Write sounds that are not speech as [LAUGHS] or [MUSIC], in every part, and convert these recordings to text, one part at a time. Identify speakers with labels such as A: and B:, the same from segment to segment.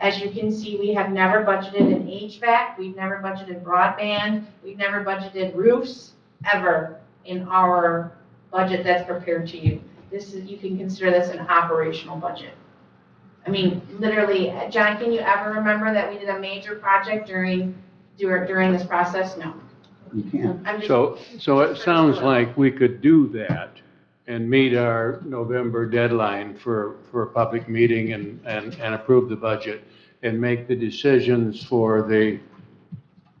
A: As you can see, we have never budgeted an HVAC, we've never budgeted broadband, we've never budgeted roofs, ever, in our budget that's prepared to you. This is, you can consider this an operational budget. I mean, literally, uh, John, can you ever remember that we did a major project during, dur- during this process? No.
B: You can't.
A: I'm just-
C: So, so it sounds like we could do that and meet our November deadline for, for a public meeting and, and, and approve the budget and make the decisions for the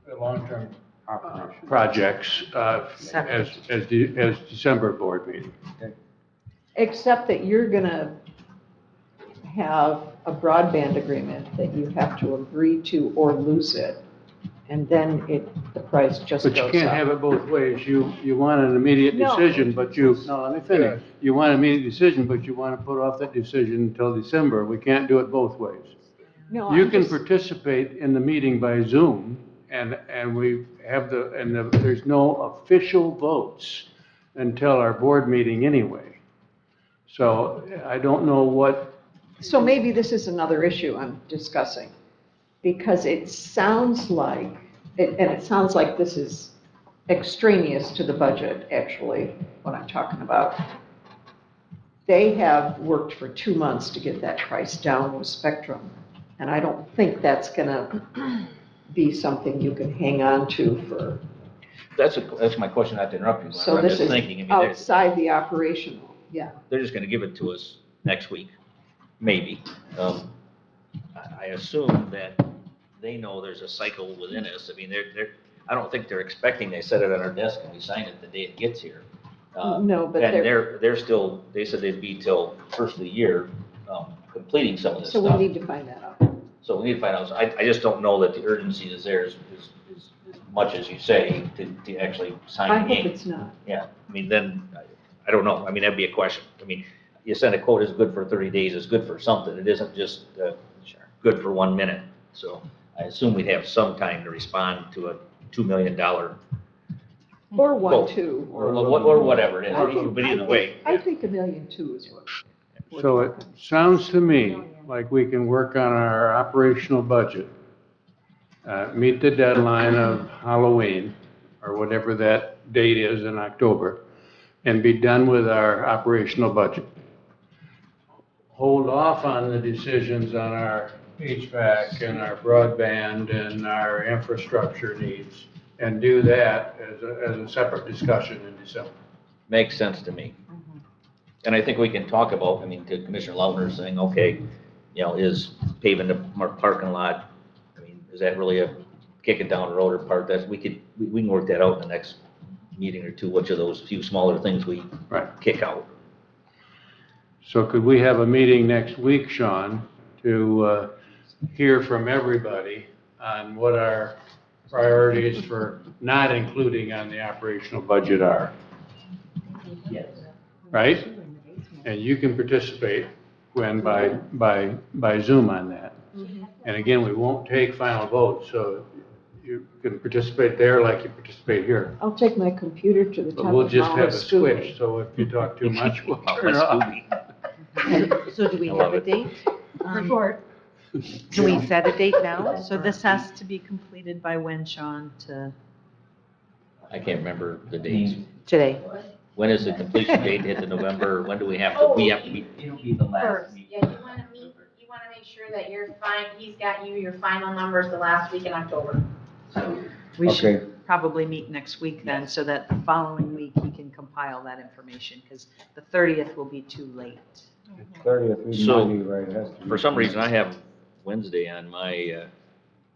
C: the long-term uh, projects uh, as, as, the- as December board meeting.
D: Except that you're gonna have a broadband agreement that you have to agree to or lose it. And then it, the price just
C: But
D: goes
C: you
D: up.
C: can't have it both ways. You, you want an immediate
D: No.
C: decision, but you, no, let me finish. You want an immediate decision, but you want to put off that decision until December. We can't do it both ways.
D: No,
C: You
D: I'm
C: can
D: just-
C: participate in the meeting by Zoom, and, and we have the, and the- there's no official votes until our board meeting anyway. So I don't know what,
D: So maybe this is another issue I'm discussing, because it sounds like, it- and it sounds like this is extraneous to the budget, actually, what I'm talking about. They have worked for two months to get that price down with Spectrum, and I don't think that's gonna be something you can hang on to for,
E: That's, a- that's my question, not to interrupt you,
D: so
E: Glenn, but I'm
D: this
E: just
D: is
E: thinking, I mean, they're,
D: outside the operational, yeah.
E: they're just gonna give it to us next week, maybe. Um, I I assume that they know there's a cycle within us, I mean, they're, they're, I don't think they're expecting, they set it on our desk and we sign it the day it gets here. Uh,
D: No, but
E: And
D: they're,
E: they're, they're still, they said they'd be till first of the year, um, completing some of this
D: so we
E: stuff.
D: need to find that out.
E: So we need to find out, So I, I just don't know that the urgency is there as, as, as as much as you say to, to actually
D: I
E: sign the
D: hope
E: game.
D: it's not.
E: Yeah, I mean, then, I- I don't know, I mean, that'd be a question. I mean, you send a quote is good for thirty days, it's good for something, it isn't just, uh, good for one minute. So I assume we'd have some time to respond to a two million dollar,
D: Or one,
E: Well,
D: two,
E: or,
D: or,
E: what- or whatever it
D: I
E: is,
D: think-
E: but either way.
D: I think a million two is what. we're
C: so it
D: talking.
C: sounds to me like we can work on our operational budget. Uh, meet the deadline of Halloween, or whatever that date is in October, and be done with our operational budget. hold off on the decisions on our HVAC and our broadband and our infrastructure needs and do that as a, as a separate discussion in December.
E: Makes sense to me.
F: Mm-hmm.
E: And I think we can talk about, I mean, to Commissioner Lautner saying, okay, you know, is paving the mar- parking lot, I mean, is that really a kick it down the road or part that's, we could, we we can work that out in the next meeting or two, which of those few smaller things we
C: Right.
E: kick out.
C: So could we have a meeting next week, Sean, to uh, hear from everybody on what our priorities for not including on the operational budget are? Right? And you can participate, Gwen, by, by, by Zoom on that. And again, we won't take final votes, so you can participate there like you participate here.
D: I'll take my computer to the top
C: But we'll
D: of
C: just
D: Mount
C: have a switch,
D: Scooby.
C: so if you talk [LAUGHS] too much, we'll
E: Mount
C: turn it off.
E: Muscogee.
D: [LAUGHS]
G: So do we
E: I
G: have
E: love
G: a
E: it.
G: date? Um,
D: Report.
G: Can we set a date [LAUGHS] now? So this has to be completed by when, Sean, to
E: I can't remember the
F: Mm-hmm.
E: dates.
G: today?
E: When is the completion date, hit the November, when do we have to, we have to be,
F: Oh, It'll be the last
A: First,
F: meeting.
A: yeah, you wanna meet, you wanna make sure that you're fine, he's got you your final numbers the last week in October.
G: We should probably meet next week then, so that the following week he can compile that information, because the 30th will be too late.
B: Thirtieth, we
E: So,
B: might be right. it has to be-
E: for some reason, I have Wednesday on my, uh,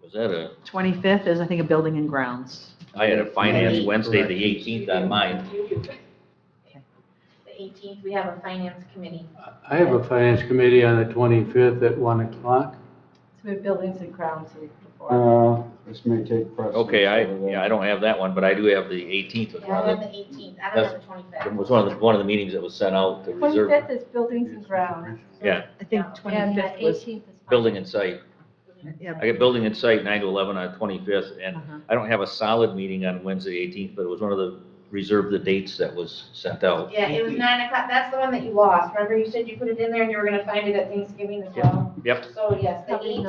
E: was that a
G: 25th is, I think, a building and grounds.
E: I had a finance
B: Yeah,
E: Wednesday,
B: correct.
E: the eighteenth on mine.
A: You do. The eighteenth, we have a finance committee.
C: I have a finance committee on the 25th at 1 o'clock.
H: So we have buildings and grounds week before.
B: Uh, this may take precedence.
E: Okay, I,
B: over that.
E: yeah, I don't have that one, but I do have the eighteenth was
A: Yeah,
E: one
A: I have
E: of
A: the eighteenth, I don't have the twenty-fifth.
E: the, was one of the, one of the meetings that was sent out, the reserve,
H: Twenty-fifth is buildings and grounds.
E: Yeah.
G: I think
H: And the
G: 25th was,
H: eighteenth is.
E: building and site.
G: yeah,
E: I got building and site nine to eleven on twenty-fifth, and
G: uh-huh.
E: I don't have a solid meeting on Wednesday eighteenth, but it was one of the, reserve the dates that was sent out.
A: Yeah, it was nine o'clock, that's the one that you lost, remember you said you put it in there and you were gonna find it at Thanksgiving as well?
E: Yep.
A: So yes, the
H: Probably
A: eighteenth.